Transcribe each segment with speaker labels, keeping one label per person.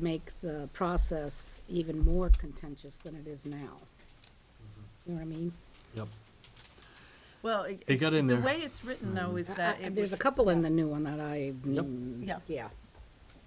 Speaker 1: make the process even more contentious than it is now. You know what I mean?
Speaker 2: Yep.
Speaker 3: Well,
Speaker 2: It got in there.
Speaker 3: The way it's written though
Speaker 4: Mm.
Speaker 3: is that
Speaker 4: Uh,
Speaker 1: I- I-
Speaker 3: it
Speaker 1: There's a
Speaker 3: would-
Speaker 1: couple in the new one that I,
Speaker 2: Yep.
Speaker 1: mm,
Speaker 3: Yeah.
Speaker 1: yeah,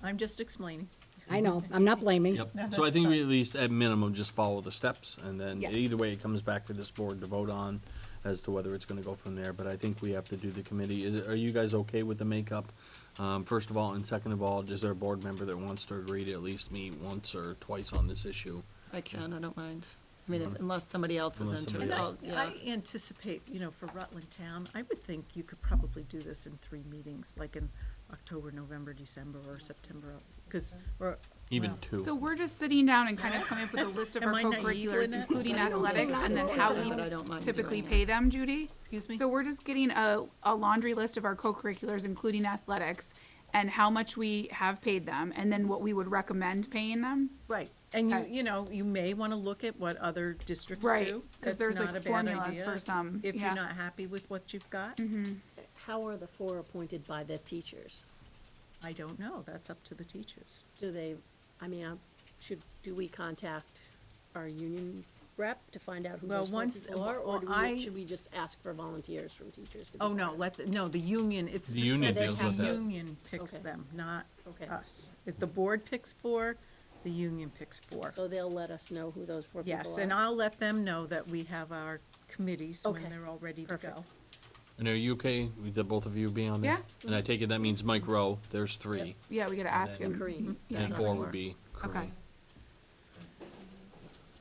Speaker 3: I'm just explaining.
Speaker 1: I know, I'm not blaming.
Speaker 2: Yep.
Speaker 3: No,
Speaker 2: So I
Speaker 3: that's
Speaker 2: think we
Speaker 3: fine.
Speaker 2: at least, at minimum, just follow the steps, and then
Speaker 1: Yeah.
Speaker 2: either way, it comes back to this board to vote on as to whether it's gonna go from there, but I think we have to do the committee. Is- Are you guys okay with the makeup? Um, first of all, and second of all, is there a board member that wants to agree to at least meet once or twice on this issue?
Speaker 5: I can, I don't mind. I mean, if- unless somebody else is
Speaker 2: Mm-hmm. Unless somebody
Speaker 5: interested,
Speaker 3: And I,
Speaker 5: I'll- yeah.
Speaker 3: I anticipate, you know, for Rutland Town, I would think you could probably do this in three meetings, like in October, November, December, or September, because, or.
Speaker 2: Even
Speaker 3: well,
Speaker 2: two?
Speaker 4: So we're just sitting down and kind of coming up with a list of our
Speaker 3: Am I naive
Speaker 4: co-curriculars,
Speaker 3: in it?
Speaker 4: including athletics, and then how
Speaker 5: But I
Speaker 4: we
Speaker 5: don't mind
Speaker 4: typically
Speaker 5: doing it.
Speaker 4: pay them, Judy?
Speaker 3: Excuse me?
Speaker 4: So we're just getting a, a laundry list of our co-curriculars, including athletics, and how much we have paid them, and then what we would recommend paying them?
Speaker 3: Right, and you,
Speaker 4: Okay.
Speaker 3: you know, you may want to look at what other districts do.
Speaker 4: Right, 'cause
Speaker 3: That's
Speaker 4: there's, like,
Speaker 3: not a bad
Speaker 4: formulas
Speaker 3: idea
Speaker 4: for some,
Speaker 3: If
Speaker 4: yeah. Mm-hmm.
Speaker 3: you're not happy with what you've got,
Speaker 6: How are the four appointed by the teachers?
Speaker 3: I don't know, that's up to the teachers.
Speaker 6: Do they, I mean, uh, should, do we contact our union rep to find out who
Speaker 3: Well,
Speaker 6: those four
Speaker 3: once-
Speaker 6: people are? Or do
Speaker 3: well, I-
Speaker 6: we, should we just ask for volunteers from teachers to be?
Speaker 3: Oh, no,
Speaker 6: part of it?
Speaker 3: let, the- no, the union, it's
Speaker 2: The union
Speaker 3: specific.
Speaker 2: deals with
Speaker 3: The
Speaker 2: that.
Speaker 3: union picks
Speaker 6: Okay.
Speaker 3: them, not
Speaker 6: Okay.
Speaker 3: us. If the board picks four, the union picks four.
Speaker 6: So they'll let us know who those four people are?
Speaker 3: Yes, and I'll let them know that we have our committees when
Speaker 6: Okay.
Speaker 3: they're all ready to
Speaker 6: Perfect.
Speaker 3: go.
Speaker 2: And are you okay with the both of you being on there?
Speaker 4: Yeah.
Speaker 2: And I take it that means Mike Rowe, there's three,
Speaker 4: Yeah, we gotta ask
Speaker 2: then-
Speaker 4: him.
Speaker 6: Kareem.
Speaker 4: Yeah,
Speaker 2: and
Speaker 4: it's
Speaker 2: four
Speaker 4: on
Speaker 2: would
Speaker 4: the
Speaker 2: be
Speaker 4: Okay.
Speaker 2: Corinne.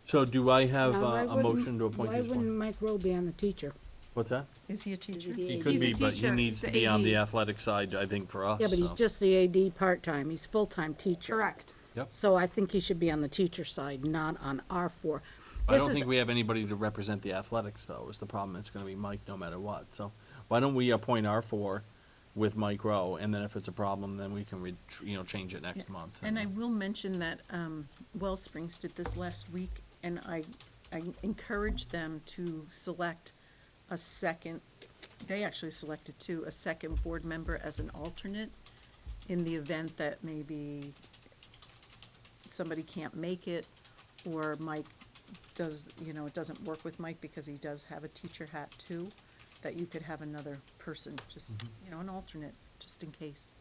Speaker 2: So do I have
Speaker 1: Now, why
Speaker 2: uh, a
Speaker 1: wouldn't-
Speaker 2: motion to appoint
Speaker 1: Why
Speaker 2: this
Speaker 1: wouldn't
Speaker 2: one?
Speaker 1: Mike Rowe be on the teacher?
Speaker 2: What's that?
Speaker 3: Is he a
Speaker 6: Is
Speaker 3: teacher?
Speaker 6: it the
Speaker 2: He
Speaker 6: AD?
Speaker 2: could
Speaker 4: He's a
Speaker 2: be, but he
Speaker 4: teacher.
Speaker 2: needs
Speaker 4: He's
Speaker 2: to
Speaker 4: a
Speaker 2: be on
Speaker 4: AD.
Speaker 2: the athletic side, I think, for us.
Speaker 1: Yeah, but he's
Speaker 2: so-
Speaker 1: just the AD part-time, he's full-time teacher.
Speaker 4: Correct.
Speaker 2: Yep.
Speaker 1: So I think he should be on the teacher side, not on our four.
Speaker 2: I
Speaker 1: This
Speaker 2: don't
Speaker 1: is-
Speaker 2: think we have anybody to represent the athletics, though, is the problem. It's gonna be Mike no matter what, so why don't we appoint our four with Mike Rowe, and then if it's a problem, then we can, re- tr- you know, change it next month.
Speaker 3: And I will mention that um, Wellsprings did this last week, and I, I encouraged them to select a second, they actually selected two, a second board member as an alternate in the event that maybe somebody can't make it, or Mike does, you know, it doesn't work with Mike because he does have a teacher hat too, that you could have another person, just, you know, an alternate, just in case.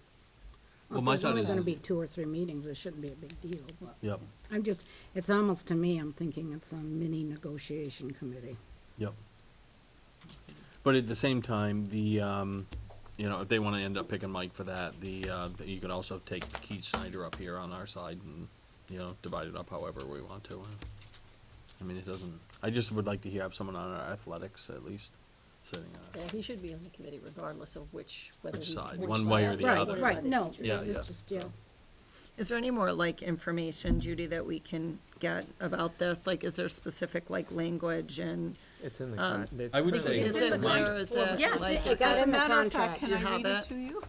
Speaker 2: Well, my
Speaker 1: There's
Speaker 2: thought
Speaker 1: only
Speaker 2: is,
Speaker 1: gonna be two or three meetings, it shouldn't be a big deal, but
Speaker 2: yep,
Speaker 1: I'm just, it's almost to me, I'm thinking it's a mini negotiation committee.
Speaker 2: yep. But at the same time, the, um, you know, if they wanna end up picking Mike for that, the, uh, that you could also take Keith Snyder up here on our side and, you know, divide it up however we want to. I mean, it doesn't, I just would like to hear, have someone on our athletics at least, sitting on it.
Speaker 6: Yeah, he should be on the committee regardless of which, whether
Speaker 2: Which
Speaker 6: he's.
Speaker 2: side, one way or the
Speaker 6: side,
Speaker 1: Right,
Speaker 2: other.
Speaker 6: appointed by
Speaker 1: right,
Speaker 6: the
Speaker 1: no,
Speaker 6: teachers.
Speaker 2: Yeah,
Speaker 1: it's
Speaker 2: yeah.
Speaker 1: just, yeah.
Speaker 5: Is there any more, like, information, Judy, that we can get about this? Like, is there specific, like, language and
Speaker 7: It's in the
Speaker 5: Um,
Speaker 7: con. it's
Speaker 2: I would
Speaker 7: in
Speaker 2: say-
Speaker 7: the-
Speaker 5: is
Speaker 2: in the
Speaker 5: it there, is it,
Speaker 3: Yes,
Speaker 5: like,
Speaker 1: it
Speaker 5: is
Speaker 1: got
Speaker 5: it?
Speaker 1: in the contract.
Speaker 5: You have it?
Speaker 3: you?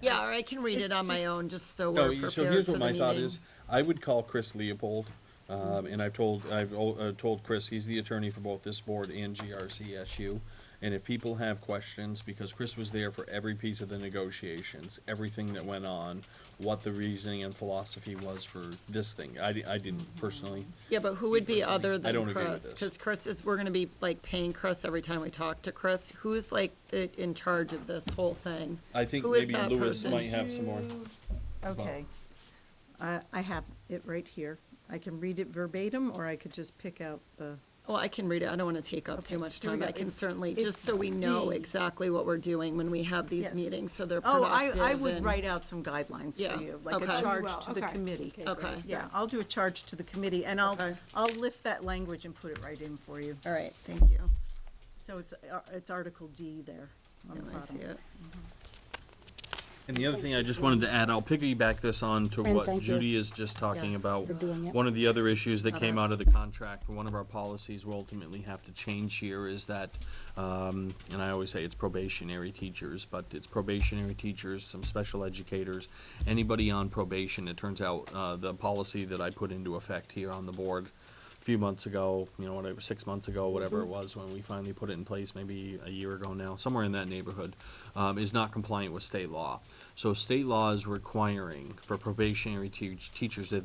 Speaker 5: Yeah, or I can read
Speaker 3: It's
Speaker 5: it on my
Speaker 3: just-
Speaker 5: own, just so
Speaker 2: No,
Speaker 5: we're
Speaker 2: you-
Speaker 5: prepared
Speaker 2: so here's
Speaker 5: for
Speaker 2: what
Speaker 5: the
Speaker 2: my thought
Speaker 5: meeting.
Speaker 2: is, I would call Chris Leopold, um, and I've told, I've, al- uh, told Chris, he's the attorney for both this board and GRCSU. And if people have questions, because Chris was there for every piece of the negotiations, everything that went on, what the reasoning and philosophy was for this thing, I, di- I didn't
Speaker 5: Mm-hmm.
Speaker 2: personally.
Speaker 5: Yeah, but who would be
Speaker 2: Personally, I
Speaker 5: other
Speaker 2: don't
Speaker 5: than
Speaker 2: agree with
Speaker 5: Chris?
Speaker 2: this.
Speaker 5: Because Chris is, we're gonna be like paying Chris every time we talk to Chris. Who's like the, in charge of this whole thing?
Speaker 2: I think
Speaker 5: Who is
Speaker 2: maybe
Speaker 5: that
Speaker 2: Lewis
Speaker 5: person?
Speaker 2: might have some more.
Speaker 3: Okay. I, I have it right here. I can read it verbatim, or I could just pick out the,
Speaker 5: Well, I can read it. I don't want to take up
Speaker 3: Okay,
Speaker 5: too much
Speaker 3: here we
Speaker 5: time. I
Speaker 3: go.
Speaker 5: can
Speaker 3: It's-
Speaker 5: certainly,
Speaker 3: it's
Speaker 5: just so we know
Speaker 3: D.
Speaker 5: exactly what we're doing when we have these
Speaker 3: Yes.
Speaker 5: meetings, so they're
Speaker 3: oh,
Speaker 5: productive
Speaker 3: I, I would
Speaker 5: and-
Speaker 3: write out some guidelines
Speaker 5: Yeah,
Speaker 3: for you, like
Speaker 5: okay.
Speaker 3: a charge
Speaker 4: Well,
Speaker 3: to the
Speaker 4: okay.
Speaker 3: committee.
Speaker 5: Okay,
Speaker 3: Yeah, I'll do a charge to the committee, and I'll,
Speaker 5: Okay.
Speaker 3: I'll lift that language and put it right in for you.
Speaker 5: all right, thank you.
Speaker 3: So it's, uh, it's Article D there on the
Speaker 5: Now I see
Speaker 3: bottom.
Speaker 5: it.
Speaker 2: And the other thing I just wanted to add, I'll piggyback this on to
Speaker 1: And
Speaker 2: what
Speaker 1: thank you.
Speaker 2: Judy is just talking
Speaker 5: Yes,
Speaker 2: about.
Speaker 1: for doing it.
Speaker 2: One of the other issues that came out of the contract, one of our policies we'll ultimately have to change here is that, um, and I always say it's probationary teachers, but it's probationary teachers, some special educators, anybody on probation. It turns out, uh, the policy that I put into effect here on the board a few months ago, you know, whatever, six months ago, whatever
Speaker 1: Mm-hmm.
Speaker 2: it was, when we finally put it in place, maybe a year ago now, somewhere in that neighborhood, um, is not compliant with state law. So state law is requiring for probationary teach, teachers that